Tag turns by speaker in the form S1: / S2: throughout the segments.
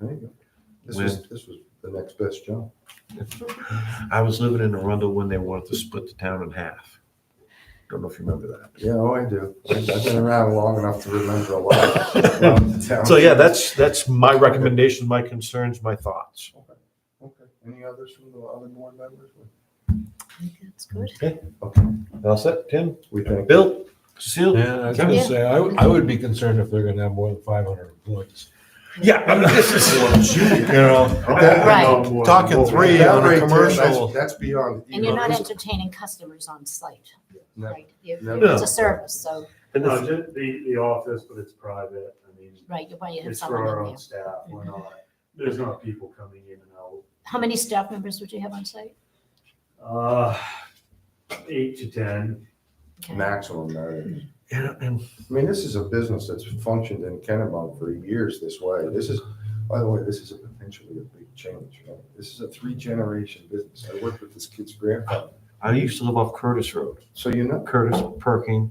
S1: There you go. This was, this was the next best job.
S2: I was living in Arundel when they wanted to split the town in half. Don't know if you remember
S1: Yeah, oh, I do. I've I've been around long enough to remember a lot.
S2: that.
S1: of towns.
S2: So yeah, that's, that's my recommendation, my concerns, my thoughts.
S1: Okay. Any others from the other board members?
S3: That's good.
S2: All set, Tim?
S1: We think.
S2: Bill? Cecile?
S4: Yeah, I was gonna
S3: Yeah.
S4: say, I, would- I would be concerned if they're gonna have more than five hundred employees.
S2: Yeah, I mean, this is.
S4: You know,
S3: Right.
S4: talking three
S1: That
S4: on
S1: right
S4: a
S1: there,
S4: commercial.
S1: That's that's beyond.
S3: And you're not
S1: even-
S3: entertaining customers on site,
S1: No.
S3: right? You-
S1: No.
S3: It's a service, so,
S2: And
S5: No,
S2: the-
S5: just the, the office, but it's private. I mean,
S3: right, you Mm-hmm. want to have
S5: it's for uh, our
S3: someone in
S5: own
S3: there.
S5: staff. We're not, there's not people coming in and out.
S3: How many staff members would you have on site?
S5: Uh, eight to 10.
S3: Okay.
S1: Maximum, no.
S2: and- and-
S1: I mean, this is a business that's functioned in Kennebunk for years this way. This is, by the way, this is a potentially a big change. right? This is a three-generation business. I worked with this kid's grandfather.
S2: I used to live off Curtis Road,
S1: So you know,
S2: Curtis, Perking.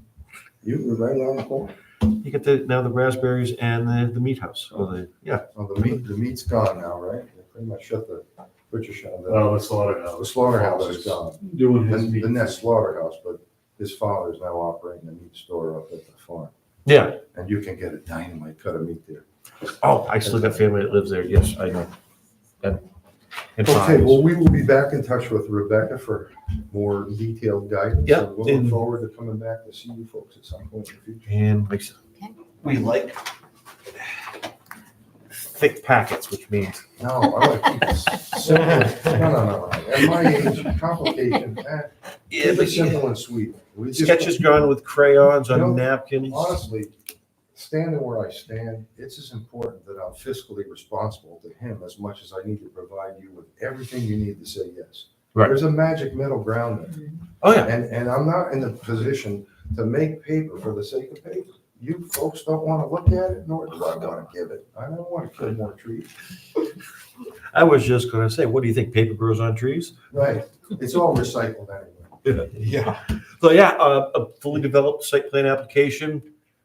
S1: you were right on the corner.
S2: You get the, now the raspberries and the, the meat house, or the, yeah.
S1: Well, the meat, the meat's gone now, right? They pretty much shut the butcher shop. down.
S2: Oh,
S5: Well, Uh, the
S1: The
S5: slaughterhouse.
S1: slaughterhouse is gone.
S5: Doing
S1: The
S5: his meat.
S1: the next slaughterhouse, but his father is now operating a meat store up at the farm.
S2: Yeah.
S1: And you can get a dynamite cut of meat there.
S2: Oh, I still got family that lives there. Yes, I know. And, and
S1: Okay,
S2: fines.
S1: well, we will be back in touch with Rebecca for more detailed guidance.
S2: Yep,
S1: And We'll look
S2: and-
S1: forward to coming back to see you folks at some point in the future.
S2: And like I said,
S3: Okay.
S2: we like thick packets, which means
S1: No, I like to keep it simple. No, no, no, no. At my age, complications, eh, keep it simple and sweet. We just-
S2: sketches drawn with crayons
S1: You know,
S2: on napkins.
S1: honestly, standing where I stand, it's as important that I'm fiscally responsible to him as much as I need to provide you with everything you need to say yes.
S2: Right.
S1: There's a magic middle ground
S2: Oh
S1: there,
S2: yeah,
S1: and, and I'm not in the position to make paper for the sake of paper. You folks don't wanna look at it, nor do I wanna give it. I don't wanna kill more trees.
S2: I was just gonna say, what do you think? Paper grows on trees.
S1: Right, it's all recycled anyway.
S2: Yeah. So yeah, uh, a fully developed site plan application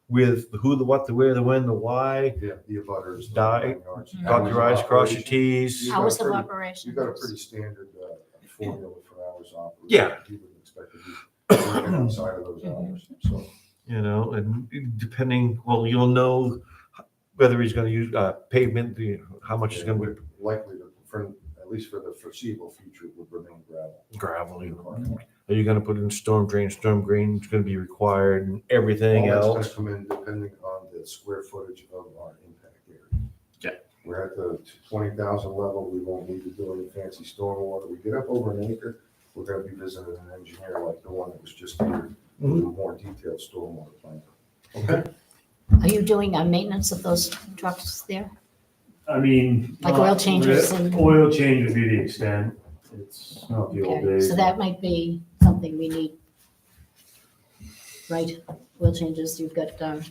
S2: with the who, the what, the where, the when, the why.
S1: Yeah, The abutters. the
S2: Die.
S1: nine yards.
S2: Dot your i's, cross your t's.
S1: You got
S3: Hours of
S1: pretty-
S3: operation.
S1: You've got a pretty standard uh, formula for hours operated.
S2: Yeah.
S1: You would expect to be working outside of those hours, so.
S2: you know, and depending, well, you'll know whether he's gonna use uh, pavement, the- how much is gonna
S1: be? Likely to, for, at least for the foreseeable future, would remain gravel.
S2: be gravel. you know. Are you gonna put in storm drain, storm drain is gonna be required and everything
S1: All
S2: else?
S1: that's gonna come in depending on the square footage of our impact area.
S2: Yeah.
S1: We're at the twenty thousand level, we won't need to do any fancy stormwater, we get up over an acre, we're gonna be visiting an engineer like the one that was just here,
S2: Mm-hmm.
S1: with a more detailed stormwater plan. Okay?
S3: Are you doing uh, maintenance of those trucks there?
S5: I mean.
S3: Like oil
S5: not-
S3: changes and-
S5: Oil change would be the extent. It's not the old
S3: Okay,
S5: days.
S3: So that might be something we need. Right, oil changes, you've got um,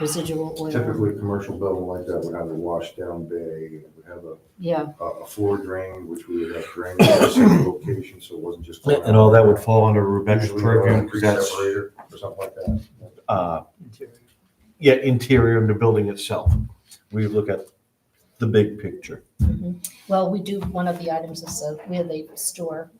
S3: residual oil.
S1: Typically, a commercial building like that would have a wash down bay, it would have a,
S3: Yeah,
S1: a a floor drain, which we would have drained at a single location, so it wasn't just. going
S2: And all that would
S1: out.
S2: fall under Rebecca's
S1: Usually we'll have
S2: purview,
S1: a
S2: because that's,
S1: pre-separator Or something like that.
S2: uh, yeah, interior and the building itself. We look at the big picture.
S3: Mm-hmm. well, we do, one of the items is uh, where they store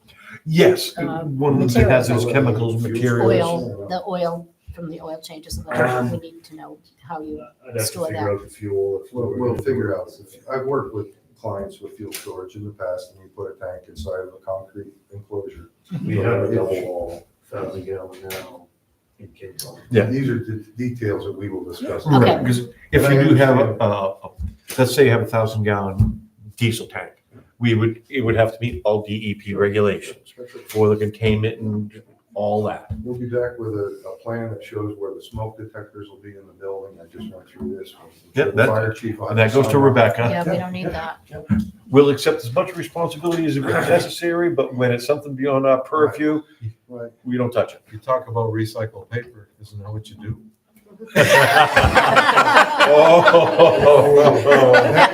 S2: Yes,
S3: Uh,
S2: one of the hazardous chemicals, materials.
S3: oil, the oil from the oil changes. and all. We need to know how you,
S5: I'd have to
S3: Store
S5: figure out the fuel. if we
S1: We'll,
S5: were
S1: we'll
S5: gonna
S1: figure
S5: do
S1: out. I've worked with clients with fuel storage in the past, and you put a tank inside of a concrete enclosure.
S5: We have a
S1: It's-
S5: double wall, thousand gallon now in case.
S2: Yeah.
S1: These are the details that we will discuss.
S3: Okay.
S2: Right, because if
S1: But I
S2: you do have, a-
S1: understand.
S2: a- a- let's say you have a thousand gallon diesel tank, we would, it would have to meet all DEP regulations for the containment and all that.
S1: We'll be back with a, a plan that shows where the smoke detectors will be in the building. I just went through this.
S2: Yep, that-
S1: Fire chief.
S2: And that goes to Rebecca.
S3: yeah, we don't need that.
S2: We'll accept as much responsibility as necessary, but when it's something beyond our purview,
S1: Right.
S2: we don't touch it.
S4: You talk about recycled paper, isn't that what you do?
S2: Oh,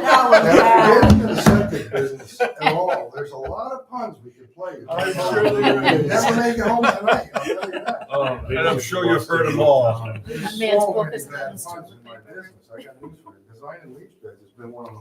S1: Now, get into the septic business at all. There's a lot of puns we could play.
S5: I'm sure there is.
S1: Never make it home tonight, I'll tell you that.
S2: And I'm sure you've heard them all.
S3: man's
S1: So
S3: book
S1: many
S3: is
S1: bad
S3: not
S1: puns in my business. I got news for you. Design and lease bed has been one of the